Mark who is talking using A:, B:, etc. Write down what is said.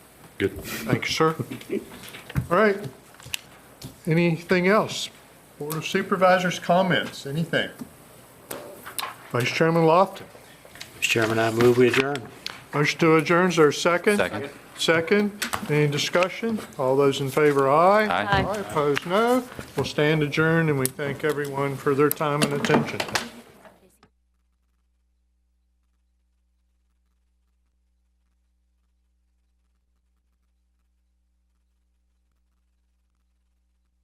A: Good.
B: Thank you, sir. All right. Anything else? Board of Supervisors comments, anything? Vice Chairman Lofton.
C: Mr. Chairman, I move we adjourn.
B: Motion to adjourn, is there a second?
A: Second.
B: Second. Any discussion? All those in favor, aye.
A: Aye.
B: Opposed, no. We'll stand adjourned, and we thank everyone for their time and attention.